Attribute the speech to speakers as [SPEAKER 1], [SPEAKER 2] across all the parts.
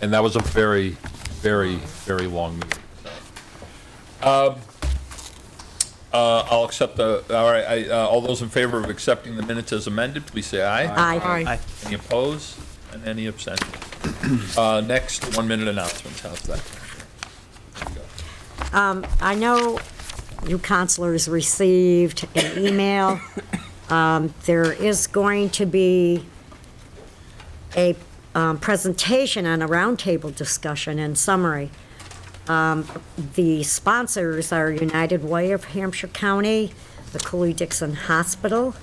[SPEAKER 1] And that was a very, very, very long meeting. so. Um, uh, I'll accept the, all right, I, uh, all those in favor of accepting the minutes as amended, please say aye.
[SPEAKER 2] Aye.
[SPEAKER 3] Aye.
[SPEAKER 1] Any opposed? And any abstentions? Uh, Next, one-minute announcements, how's that?
[SPEAKER 2] I know you counselors received an email. Um, There is going to be a um, presentation and a roundtable discussion and summary. Um, The sponsors are United Way of Hampshire County, the Cooley-Dixon Hospital,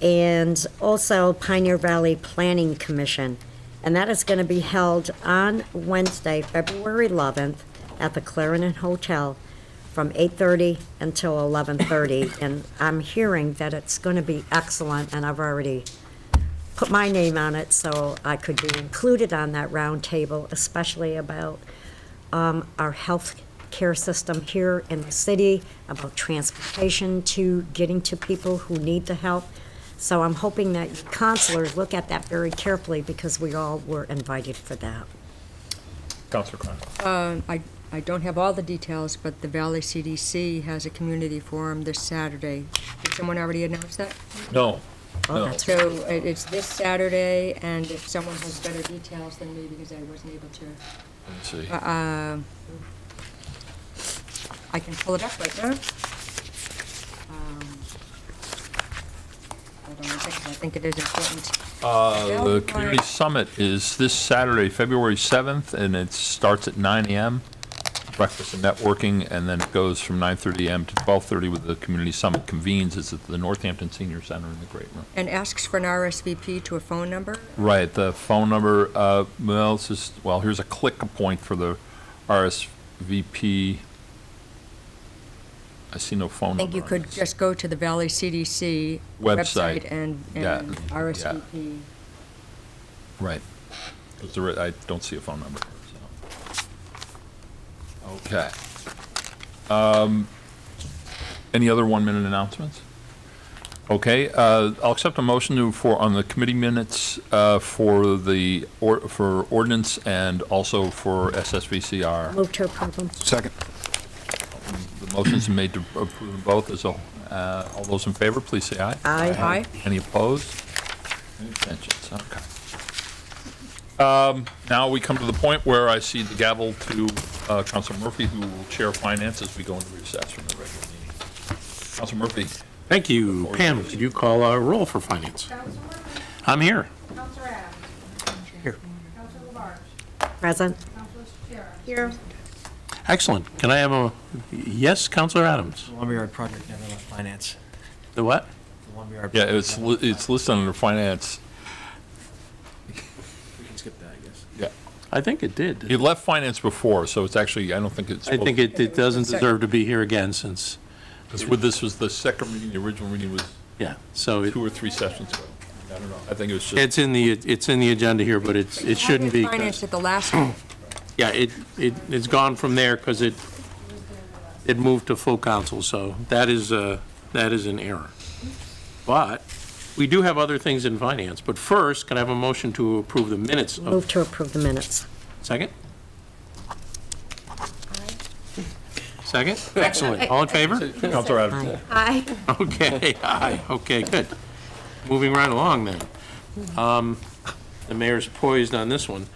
[SPEAKER 2] and also Pioneer Valley Planning Commission. And that is going to be held on Wednesday, February 11th, at the Clarendon Hotel from 8:30 until 11:30. And I'm hearing that it's going to be excellent, and I've already put my name on it so I could be included on that roundtable, especially about um, our health care system here in the city, about transportation to getting to people who need the help. So I'm hoping that you counselors look at that very carefully because we all were invited for that.
[SPEAKER 1] Counselor Cronin.
[SPEAKER 3] Um, I, I don't have all the details, but the Valley CDC has a community forum this Saturday. Did someone already announce that?
[SPEAKER 1] No,
[SPEAKER 2] Oh,
[SPEAKER 1] no.
[SPEAKER 2] that's-
[SPEAKER 3] So it- it's this Saturday, and if someone has better details than me, because I wasn't able to,
[SPEAKER 1] Let's see.
[SPEAKER 3] um, I can pull it up right now. Um, Hold on a second, I think it is important.
[SPEAKER 1] Uh, The
[SPEAKER 3] Valley-
[SPEAKER 1] community summit is this Saturday, February 7th, and it starts at 9 AM. Breakfast and networking, and then it goes from 9:30 AM to 12:30 with the community summit convenes. It's at the Northampton Senior Center in the Great Room.
[SPEAKER 3] And asks for an RSVP to a phone number.
[SPEAKER 1] Right, the phone number, uh, well, it's just, well, here's a click point for the RSVP. I see no phone
[SPEAKER 3] I
[SPEAKER 1] number.
[SPEAKER 3] think you
[SPEAKER 1] on
[SPEAKER 3] could
[SPEAKER 1] this.
[SPEAKER 3] just go to the Valley CDC
[SPEAKER 1] Website.
[SPEAKER 3] website and,
[SPEAKER 1] Yeah,
[SPEAKER 3] and
[SPEAKER 1] yeah.
[SPEAKER 3] RSVP.
[SPEAKER 1] Right. 'Cause there- I don't see a phone number. so. Okay. Um, Any other one-minute announcements? Okay, uh, I'll accept a motion to, for, on the committee minutes uh, for the, or for ordinance and also for SSVCR.
[SPEAKER 2] Move to approve them.
[SPEAKER 4] Second.
[SPEAKER 1] The motion's been made to approve them both as a, uh, all those in favor, please say aye.
[SPEAKER 2] Aye.
[SPEAKER 3] Aye.
[SPEAKER 1] Any opposed? Any abstentions? Okay. Um, Now we come to the point where I see the gavel to uh, Council Murphy, who will chair finance as we go into recess from the regular meeting. Council Murphy,
[SPEAKER 5] Thank you. Pam, could you call a roll for finance?
[SPEAKER 6] Counselor Murphy,
[SPEAKER 5] I'm here.
[SPEAKER 6] Counselor Adams. Here. Counselor LaBarge,
[SPEAKER 2] Present.
[SPEAKER 6] Counselor Shara. Here.
[SPEAKER 5] Excellent. Can I have a, yes, Counselor Adams?
[SPEAKER 7] The Lumberyard project never left finance.
[SPEAKER 5] The what?
[SPEAKER 7] The lumberyard.
[SPEAKER 1] yeah, it's, li- it's listed under finance.
[SPEAKER 7] We can skip that, I guess.
[SPEAKER 1] Yeah,
[SPEAKER 5] I think it did.
[SPEAKER 1] It left finance before, so it's actually, I don't think it's.
[SPEAKER 5] I think it, it doesn't deserve to be here again since,
[SPEAKER 1] Because with this was the second reading, the original reading was
[SPEAKER 5] yeah, so it-
[SPEAKER 1] two or three sessions ago. I don't know, I think it was just,
[SPEAKER 5] it's in the, it's in the agenda here, but it's, it shouldn't be. 'cause-
[SPEAKER 3] Financed at the last, one.
[SPEAKER 5] Yeah, it, it, it's gone from there because it, it moved to full council, so that is, uh, that is an error. But we do have other things in finance, but first, can I have a motion to approve the minutes of
[SPEAKER 2] Move to approve the minutes.
[SPEAKER 5] Second? Second? Excellent. All in favor?
[SPEAKER 1] Counselor Adams.
[SPEAKER 6] Aye.
[SPEAKER 5] Okay, aye, okay, good. Moving right along then. Um, The mayor's poised on this one.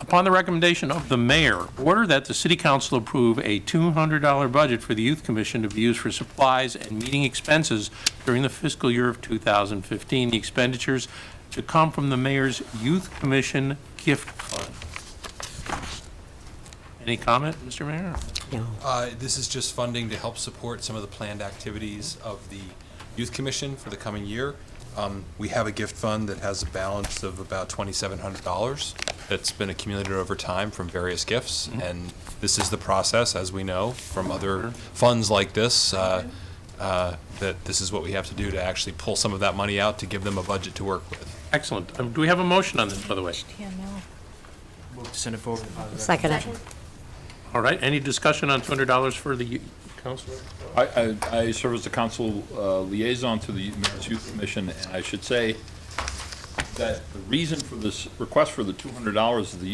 [SPEAKER 5] Upon the recommendation of the mayor, order that the city council approve a $200 budget for the youth commission to be used for supplies and meeting expenses during the fiscal year of 2015. The expenditures to come from the mayor's youth commission gift fund. Any comment, Mr. Mayor?
[SPEAKER 2] No.
[SPEAKER 8] Uh, This is just funding to help support some of the planned activities of the Youth Commission for the coming year. Um, We have a gift fund that has a balance of about $2,700 that's been accumulated over time from various gifts, and this is the process, as we know, from other funds like this, uh, uh, that this is what we have to do to actually pull some of that money out to give them a budget to work with.
[SPEAKER 5] Excellent. Um, Do we have a motion on this, by the way?
[SPEAKER 7] Move to send it forward. to positive.
[SPEAKER 2] Second it.
[SPEAKER 5] All right, any discussion on $200 for the u- counselor?
[SPEAKER 1] I, I, I serve as the council uh, liaison to the Mayor's Youth Commission, and I should say that the reason for this request for the two hundred dollars is the youth